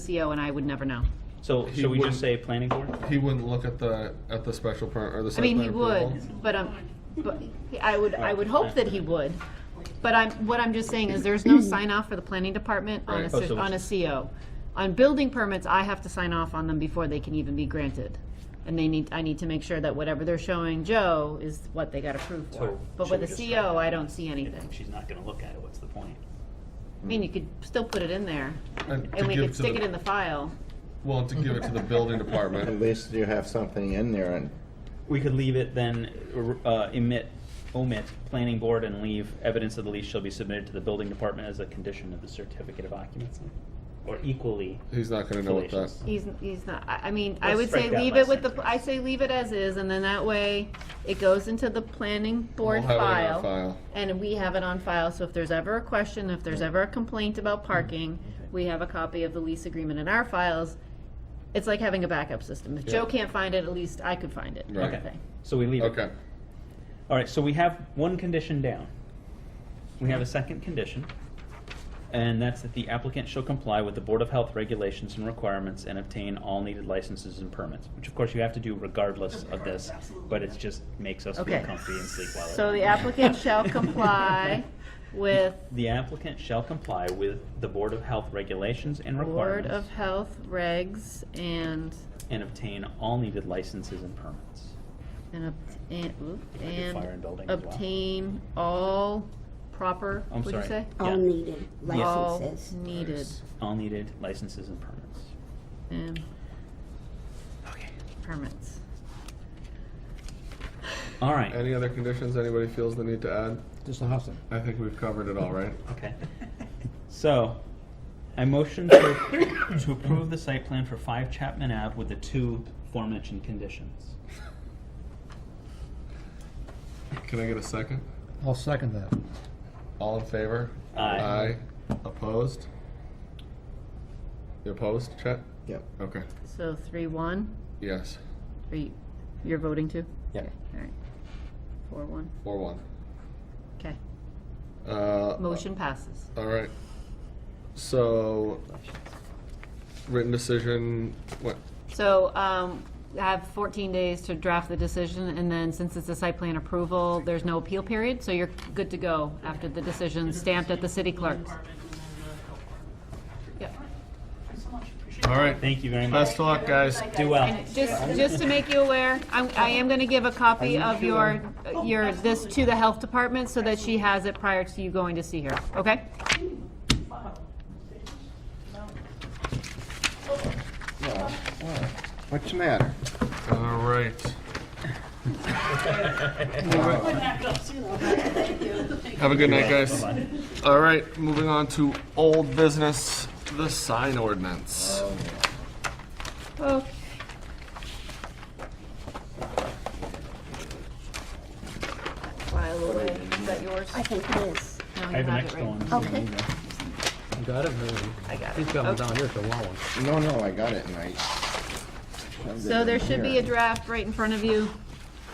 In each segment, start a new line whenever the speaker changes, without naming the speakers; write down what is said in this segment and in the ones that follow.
CO E and I would never know.
So
He
should we
wouldn't-
just say planning board?
He wouldn't look at the, at the special permit or the
I
site
mean,
plan
he
approval?
would, but um, but I would, I would hope that he would. But I'm, what I'm just saying is there's no sign off for the planning department on a,
Right.
Oh, so
cer- on a CO. On building permits, I have to sign off on them before they can even be granted. And they need, I need to make sure that whatever they're showing Joe is what they got approved for.
So
But
should
with a
we just write
CO, I don't see anything.
If she's not gonna look at it, what's the point?
I mean, you could still put it in there
And to
and we
give
could
to
stick
the-
it in the file.
Well, to give it to the building
At
department.
least you have something in there and
We could leave it then, uh, emit, omit, planning board and leave, evidence of the lease shall be submitted to the building department as a condition of the certificate of occupancy. Or equally.
He's not gonna know what that.
fallacious.
He's, he's not, I, I mean, I
Let's
would say
strike that
leave it
last
with the,
sentence.
I say leave it as is, and then that way, it goes into the planning board
We'll have it in our
file.
file.
And we have it on file, so if there's ever a question, if there's ever a complaint about parking, we have a copy of the lease agreement in our files. It's like having a backup system. If Joe
Yeah.
can't find it, at least I could find it.
Right.
kind of
Okay.
thing.
So we leave it.
Okay,
All right, so we have one condition down. We have a second condition, and that's that the applicant shall comply with the Board of Health regulations and requirements and obtain all needed licenses and permits, which of course you have to do regardless of this, but it just makes us feel
Okay.
comfy and sleep well. at
So the
night.
applicant shall comply with
The applicant shall comply with the Board of Health regulations and
Board of
requirements
Health regs and,
and obtain all needed licenses and permits.
and, ob- and, oop,
fire and building
and
as well.
obtain all proper,
I'm
what'd you
sorry.
say?
Yeah.
All needed
Yeah.
All
licenses.
needed
All needed licenses and permits.
and
Okay.
permits.
All right,
any other conditions anybody feels the need to add?
Just a hustle.
I think we've covered it all, right?
okay. So, I motion to, to approve the site plan for five Chapman Ave with the two aforementioned conditions.
Can I get a second?
I'll second that.
All in favor?
Aye.
Aye. Opposed? You opposed, Chet?
yep.
Okay,
So three, one,
yes,
are you, you're voting too?
Yeah.
Okay, All right. Four, one,
four one.
okay.
Uh,
Motion passes.
All right. So, written decision, what,
So, um, I have fourteen days to draft the decision, and then since it's a site plan approval, there's no appeal period, so you're good to go after the decision stamped at the city clerk's. Yep.
all right.
Thank you very much.
Best of luck, guys.
Do well.
And just, just to make you aware, I'm, I am gonna give a copy of your, your, this to the health department so that she has it prior to you going to see her, okay?
What's the matter?
All right. Have a good night, guys. All right, moving on to old business, the sign ordinance.
Oh.
Okay. File away, is that yours?
I think it is.
No, you
I have an
have it
extra
right. Oh.
one.
Okay.
You got it? I got it. He's got one down here if you want one.
No, no, I got it right.
So there should be a draft right in front of you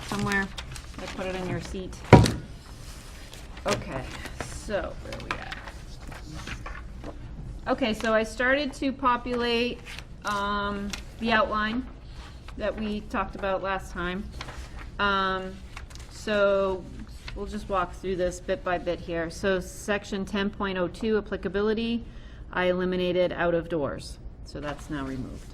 somewhere. I put it in your seat. Okay, so where are we at? Okay, so I started to populate, um, the outline that we talked about last time. Um, so we'll just walk through this bit by bit here. So section ten point oh two applicability, I eliminated out of doors, so that's now removed.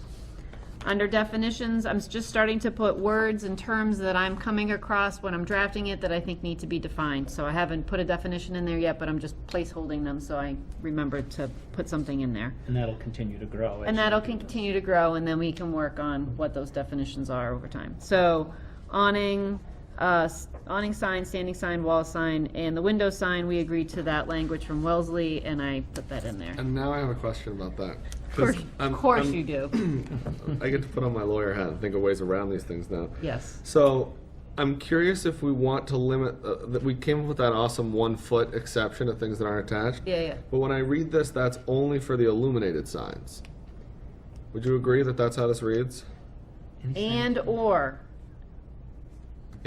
Under definitions, I'm just starting to put words and terms that I'm coming across when I'm drafting it that I think need to be defined. So I haven't put a definition in there yet, but I'm just placeholding them, so I remember to put something in there.
And that'll continue to grow. as
And
you
that'll
do this.
continue to grow, and then we can work on what those definitions are over time. So awning, uh, s- awning sign, standing sign, wall sign, and the window sign, we agreed to that language from Wellesley, and I put that in there.
And now I have a question about that.
Of course- Of course you do,
I get to put on my lawyer hat and think of ways around these things now.
yes.
So, I'm curious if we want to limit, uh, that we came up with that awesome one foot exception of things that aren't attached.
Yeah, yeah.
But when I read this, that's only for the illuminated signs. Would you agree that that's how this reads?
And/or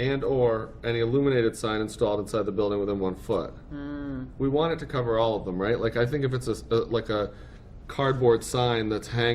And/or any illuminated sign installed inside the building within one foot. We want it to cover all of them, right? Like I think if it's a, s- uh, like a cardboard sign that's hanging.